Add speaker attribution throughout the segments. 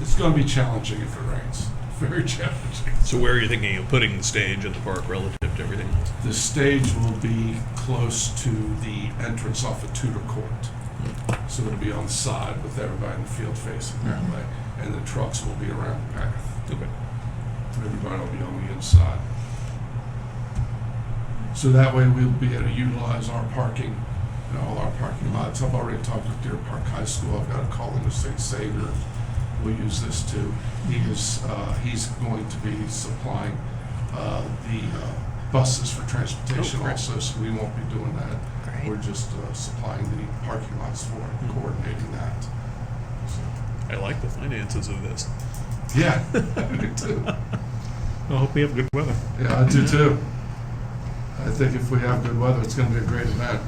Speaker 1: It's going to be challenging if it rains. Very challenging.
Speaker 2: So where are you thinking of putting the stage and the park relative to everything else?
Speaker 1: The stage will be close to the entrance off of Tudor Court. So it'll be on the side with everybody in the field facing that way. And the trucks will be around the path.
Speaker 2: Okay.
Speaker 1: Everybody will be on the inside. So that way we'll be able to utilize our parking and all our parking lots. I've already talked with Deer Park High School. I've got a call into St. Savior. We'll use this too. He is, uh, he's going to be supplying, uh, the uh, buses for transportation
Speaker 2: Oh, great.
Speaker 1: also, so we won't be doing that.
Speaker 3: Great.
Speaker 1: We're just, uh, supplying the parking lots for it,
Speaker 2: Hmm.
Speaker 1: coordinating that.
Speaker 2: I like the finances of this.
Speaker 1: Yeah, I do too.
Speaker 2: I hope we have good weather.
Speaker 1: Yeah, I do too. I think if we have good weather, it's going to be a great event.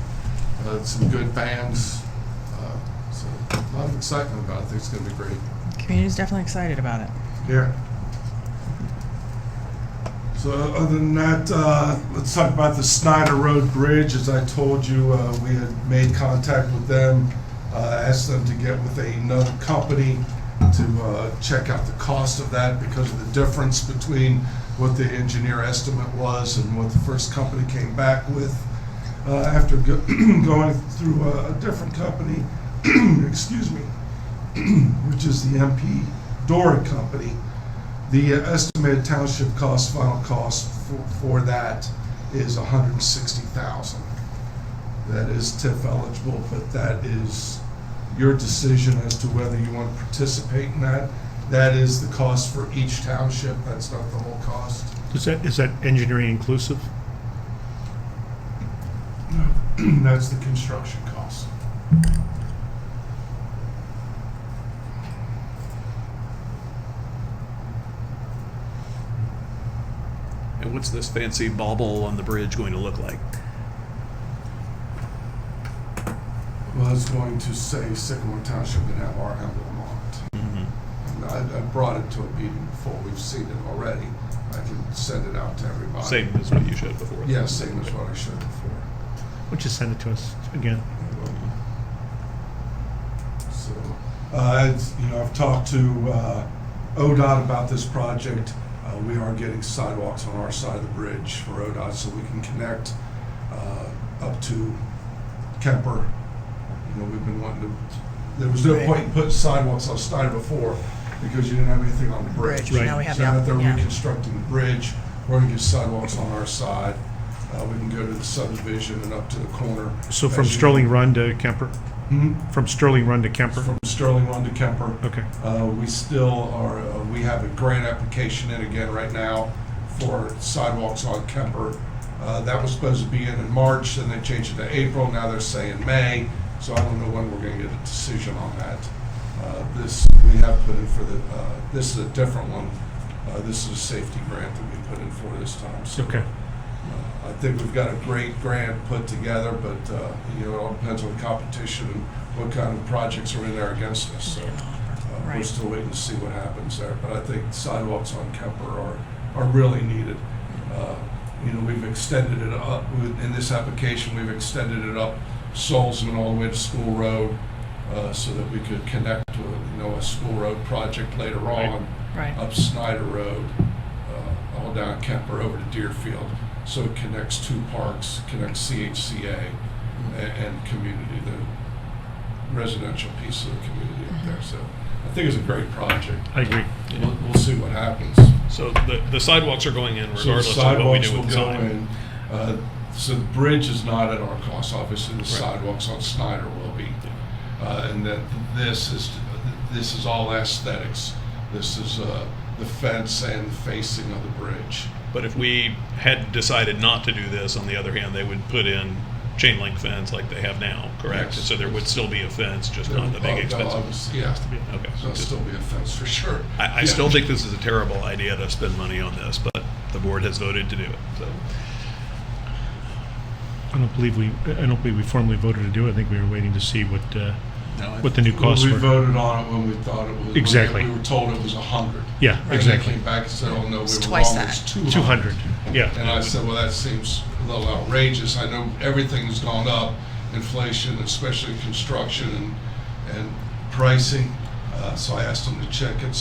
Speaker 1: Uh, some good bands. Uh, so a lot of excitement about it. I think it's going to be great.
Speaker 3: Community's definitely excited about it.
Speaker 1: Yeah. So other than that, uh, let's talk about the Snyder Road Bridge. As I told you, uh, we had made contact with them, uh, asked them to get with another company to uh, check out the cost of that because of the difference between what the engineer estimate was and what the first company came back with. Uh, After go- going through a a different company, excuse me, which is the MP Dora Company. The estimated township cost, final cost for, for that is a hundred and sixty thousand. That is TIF eligible, but that is your decision as to whether you want to participate in that. That is the cost for each township, that's not the whole cost.
Speaker 4: Is that, is that engineering inclusive?
Speaker 1: That's the construction cost.
Speaker 2: And what's this fancy bauble on the bridge going to look like?
Speaker 1: Well, it's going to say Sycamore Township and have our emblem on it. And I, I brought it to a meeting before, we've seen it already. I can send it out to everybody.
Speaker 2: Same as what you showed before.
Speaker 1: Yeah, same as what I showed before.
Speaker 4: Would you send it to us again?
Speaker 1: So, uh, it's- you know, I've talked to uh, ODOT about this project. Uh, We are getting sidewalks on our side of the bridge for ODOT so we can connect uh, up to Kemper. You know, we've been wanting to, there was no point in putting sidewalks on Steiner before because you didn't have anything on the bridge.
Speaker 3: Bridge,
Speaker 4: Right.
Speaker 3: now we have,
Speaker 1: So now
Speaker 3: yeah,
Speaker 1: that they're
Speaker 3: yeah.
Speaker 1: reconstructing the bridge, we're gonna get sidewalks on our side. Uh, We can go to the subdivision and up to the corner.
Speaker 4: So from
Speaker 1: As you-
Speaker 4: Sterling Run to Kemper,
Speaker 1: Hmm?
Speaker 4: from Sterling Run to Kemper?
Speaker 1: From Sterling Run to Kemper.
Speaker 4: Okay,
Speaker 1: Uh, We still are, uh, we have a grant application in again right now for sidewalks on Kemper. Uh, That was supposed to be in in March, then they changed it to April, now they're saying May, so I don't know when we're going to get a decision on that. Uh, This, we have put in for the, uh, this is a different one. Uh, This is a safety grant that we put in for this time, so.
Speaker 4: okay.
Speaker 1: I think we've got a great grant put together, but, uh, you know, it all depends on competition and what kind of projects are in there against us, so. Uh, We're
Speaker 3: Right.
Speaker 1: still waiting to see what happens there, but I think sidewalks on Kemper are, are really needed. Uh, You know, we've extended it up, with- in this application, we've extended it up Solzman all the way to School Road, uh, so that we could connect to, you know, a School Road project later
Speaker 4: Right.
Speaker 1: on
Speaker 3: Right,
Speaker 1: up Snyder Road, uh, all down Kemper over to Deerfield. So it connects two parks, connects CHCA and, and community, the residential piece of the community up there. So I think it's a great project.
Speaker 4: I agree.
Speaker 1: We'll, we'll see what happens.
Speaker 2: So the, the sidewalks are going in
Speaker 1: So the
Speaker 2: regardless of what we
Speaker 1: sidewalks
Speaker 2: do
Speaker 1: will
Speaker 2: with the
Speaker 1: go
Speaker 2: sign.
Speaker 1: in. Uh, So the bridge is not at our cost, obviously. The
Speaker 2: Right.
Speaker 1: sidewalks on Snyder will be. Uh, and that this is, this is all aesthetics. This is uh, the fence and the facing of the bridge.
Speaker 2: But if we had decided not to do this, on the other hand, they would put in chain link fence like they have now, correct?
Speaker 1: Yes.
Speaker 2: So there would still be a fence, just not the big expensive.
Speaker 1: Yeah,
Speaker 2: Okay.
Speaker 1: there'll still be a fence for sure.
Speaker 2: I, I
Speaker 1: Yeah.
Speaker 2: still think this is a terrible idea to spend money on this, but the board has voted to do it, so.
Speaker 4: I don't believe we, I don't believe we formally voted to do it. I think we were waiting to see what, uh, what the new
Speaker 1: Well,
Speaker 4: costs
Speaker 1: we
Speaker 4: were.
Speaker 1: voted on it when we thought it was. when we-
Speaker 4: Exactly.
Speaker 1: We were told it was a hundred.
Speaker 4: Yeah, exactly.
Speaker 1: And they came back and said, oh, no, we were wrong,
Speaker 3: It's
Speaker 1: it's
Speaker 3: twice that.
Speaker 4: Two hundred,
Speaker 1: And
Speaker 4: yeah.
Speaker 1: I said, well, that seems a little outrageous. I know everything's gone up, inflation, especially construction and, and pricing. Uh, So I asked them to check it,